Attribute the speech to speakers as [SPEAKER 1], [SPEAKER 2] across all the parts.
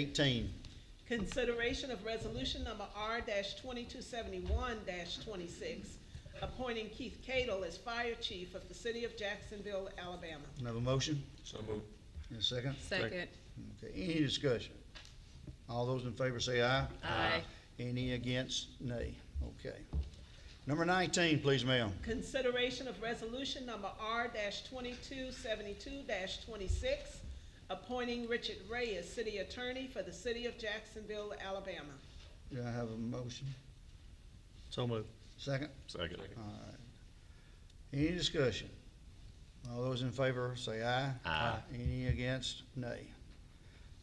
[SPEAKER 1] Eighteen,
[SPEAKER 2] Consideration of resolution number R twenty-two seventy-one twenty-six, appointing Keith Cadle as fire chief of the city of Jacksonville, Alabama.
[SPEAKER 1] Can I have a motion
[SPEAKER 3] So moved.
[SPEAKER 1] and a second?
[SPEAKER 4] Second.
[SPEAKER 1] Okay, any discussion? All those in favor say aye.
[SPEAKER 4] Aye.
[SPEAKER 1] Any against, nay. Okay. Number nineteen, please, ma'am.
[SPEAKER 2] Consideration of resolution number R twenty-two seventy-two twenty-six, appointing Richard Ray as city attorney for the city of Jacksonville, Alabama.
[SPEAKER 1] Do I have a motion?
[SPEAKER 3] So moved.
[SPEAKER 1] Second?
[SPEAKER 3] Second.
[SPEAKER 1] All right. Any discussion? All those in favor say aye. Aye. Any against, nay.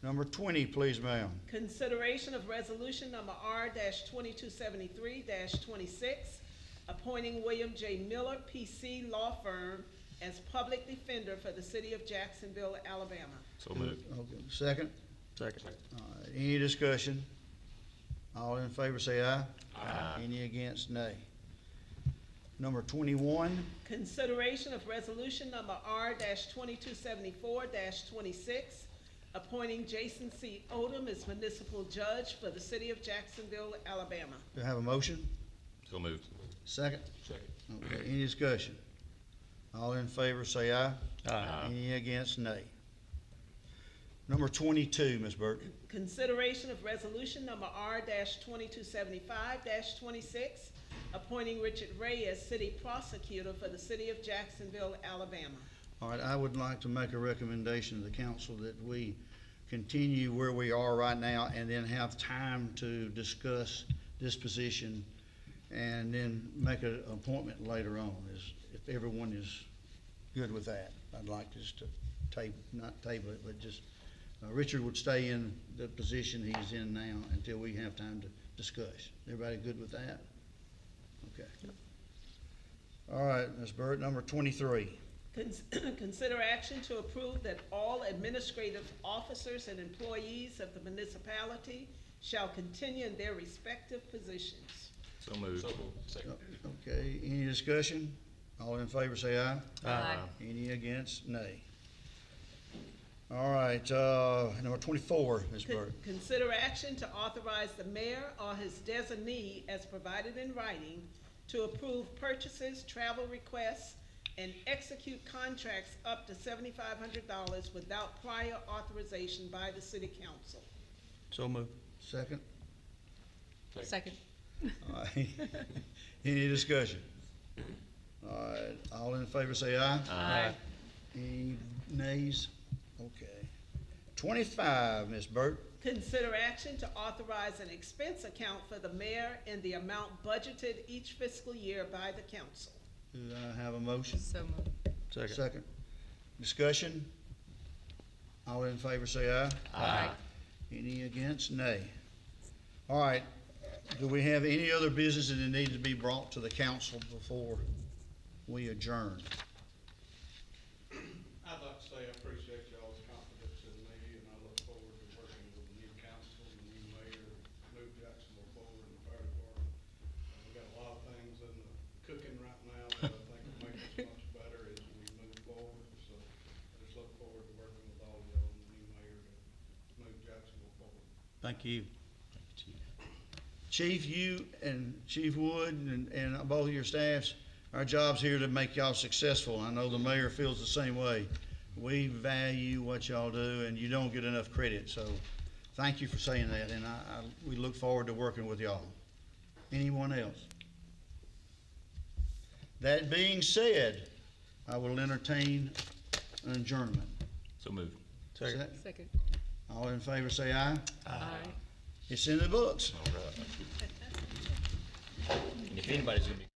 [SPEAKER 1] Number twenty, please, ma'am.
[SPEAKER 2] Consideration of resolution number R twenty-two seventy-three twenty-six, appointing William J. Miller, PC Law Firm, as public defender for the city of Jacksonville, Alabama.
[SPEAKER 3] So moved.
[SPEAKER 1] Okay, Second?
[SPEAKER 3] Second.
[SPEAKER 1] All right, any discussion? All in favor say aye.
[SPEAKER 3] Uh,
[SPEAKER 1] Aye. Any against, nay. Number twenty-one,
[SPEAKER 2] Consideration of resolution number R twenty-two seventy-four twenty-six, appointing Jason C. Odom as municipal judge for the city of Jacksonville, Alabama.
[SPEAKER 1] do I have a motion?
[SPEAKER 3] So moved.
[SPEAKER 1] Second?
[SPEAKER 3] Second.
[SPEAKER 1] Okay, any discussion? All in favor say aye.
[SPEAKER 3] Aye.
[SPEAKER 1] Any against, nay. Number twenty-two, Ms. Burton.
[SPEAKER 2] Consideration of resolution number R twenty-two seventy-five twenty-six, appointing Richard Ray as city prosecutor for the city of Jacksonville, Alabama.
[SPEAKER 1] All right, I would like to make a recommendation to the council that we continue where we are right now and then have time to discuss this position and then make an appointment later on, is, if everyone is good with that. I'd like just to table, not table it, but just, uh, Richard would stay in the position he's in now until we have time to discuss. Everybody good with that? Okay. All right, Ms. Burt, number twenty-three.
[SPEAKER 2] Cons- Consider action to approve that all administrative officers and employees of the municipality shall continue in their respective positions.
[SPEAKER 3] So moved. Second.
[SPEAKER 1] Okay, any discussion? All in favor say aye.
[SPEAKER 4] Aye.
[SPEAKER 1] Any against, nay. All right, uh, number twenty-four, Ms.
[SPEAKER 2] Con-
[SPEAKER 1] Burke.
[SPEAKER 2] Consider action to authorize the mayor or his designee as provided in writing to approve purchases, travel requests, and execute contracts up to seventy-five hundred dollars without prior authorization by the city council.
[SPEAKER 3] So moved.
[SPEAKER 1] Second?
[SPEAKER 4] Second.
[SPEAKER 1] All right. Any discussion? All right, all in favor say aye.
[SPEAKER 4] Aye.
[SPEAKER 1] Any nays? Okay. Twenty-five, Ms. Burke.
[SPEAKER 2] Consider action to authorize an expense account for the mayor in the amount budgeted each fiscal year by the council.
[SPEAKER 1] Do I have a motion?
[SPEAKER 4] So moved.
[SPEAKER 1] Second. Discussion? All in favor say aye.
[SPEAKER 4] Aye.
[SPEAKER 1] Any against? Nay. All right, do we have any other business that needs to be brought to the council before we adjourn?
[SPEAKER 5] I'd like to say I appreciate y'all's confidence in me, and I look forward to working with the new council, the new mayor, move Jacksonville forward in the fire department. Uh, we got a lot of things in the cooking right now that I think will make us much better as we move forward, so I just look forward to working with all y'all and the new mayor to move Jacksonville forward.
[SPEAKER 1] Thank you. Chief, you and Chief Wood and, and both of your staffs, our job's here to make y'all successful. I know the mayor feels the same way. We value what y'all do and you don't get enough credit, so thank you for saying that and I, I, we look forward to working with y'all. Anyone else? That being said, I will entertain an adjournment.
[SPEAKER 3] So moved.
[SPEAKER 4] Second.
[SPEAKER 1] All in favor, say aye.
[SPEAKER 4] Aye.
[SPEAKER 1] It's in the books.
[SPEAKER 3] All right. And if anybody's gonna be